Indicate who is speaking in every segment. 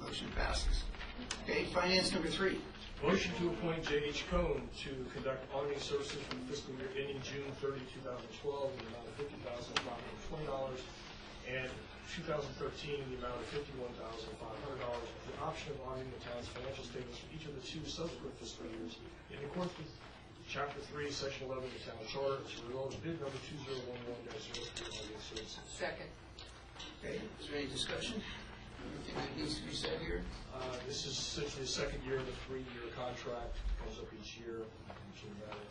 Speaker 1: Motion passes. Okay, finance number three.
Speaker 2: Motion to appoint J.H. Cohn to conduct auditing services for the fiscal year ending June 30, 2012, in the amount of $50,520, and 2013 in the amount of $51,500, with the option of auditing the town's financial statements for each of the two subsequent fiscal years in accordance with Chapter 3, Section 11 of the Town Charter, to resolve bid number 2011-03 auditing services.
Speaker 3: second,
Speaker 1: Okay, is there any discussion? Anything that needs to be said here?
Speaker 2: Uh, This is essentially the second year of the three-year contract, comes up each year. Should have added.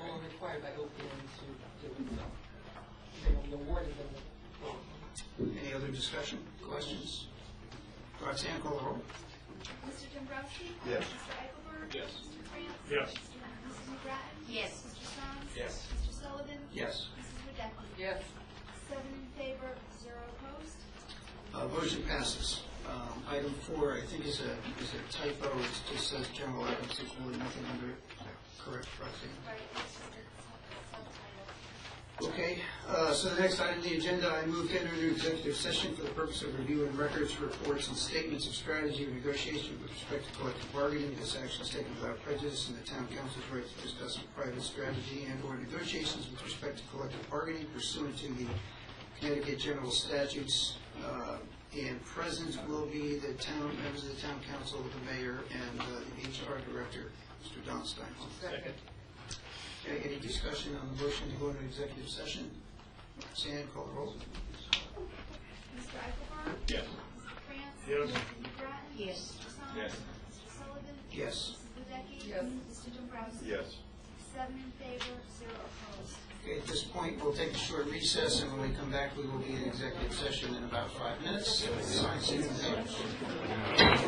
Speaker 3: all required by OPM to do so. They awarded them.
Speaker 1: Any other discussion, questions? Roxanne, call the roll.
Speaker 4: Mr. Dombrowski?
Speaker 1: Yes.
Speaker 4: Mr. Eichelberg?
Speaker 2: Yes.
Speaker 4: Mr. France?
Speaker 2: Yes.
Speaker 4: Mrs. McGrattan?
Speaker 5: Yes.
Speaker 4: Mr. Song?
Speaker 2: Yes.
Speaker 4: Mr. Sullivan?
Speaker 1: Yes.
Speaker 4: Mrs. Wadecki?
Speaker 3: Yes,
Speaker 4: Seven in favor, zero opposed.
Speaker 1: Uh, Motion passes. Um, Item four, I think is a is a typo, it just says general items, there's really nothing under it. Correct, Roxanne?
Speaker 4: Right, it's just a sub- subtitle.
Speaker 1: Okay, uh, so the next item on the agenda, I move to enter into executive session for the purpose of reviewing records, reports, and statements of strategy and negotiation with respect to collective bargaining. This action is taken without prejudice, and the town council's right to discuss private strategy and/or negotiations with respect to collective bargaining pursuant to the Connecticut General Statutes. Uh, And present will be the town, members of the town council, the mayor, and uh, the HR director, Mr. Don Steinhoff.
Speaker 3: second,
Speaker 1: Okay, any discussion on the motion to go into executive session? Roxanne, call the roll.
Speaker 4: Mr. Eichelberg?
Speaker 2: Yes.
Speaker 4: Mr. France?
Speaker 5: Yes.
Speaker 4: Mrs. McGrattan?
Speaker 2: Yes.
Speaker 4: Mr. Song?
Speaker 2: Yes.
Speaker 4: Mr. Sullivan?
Speaker 1: Yes.
Speaker 4: Mrs. Wadecki?
Speaker 3: Yes.
Speaker 4: Mr. Dombrowski?
Speaker 6: Yes.
Speaker 4: Seven in favor, zero opposed.
Speaker 1: Okay, at this point, we'll take a short recess, and when we come back, we will be in executive session in about five minutes. Sign, see you in a minute.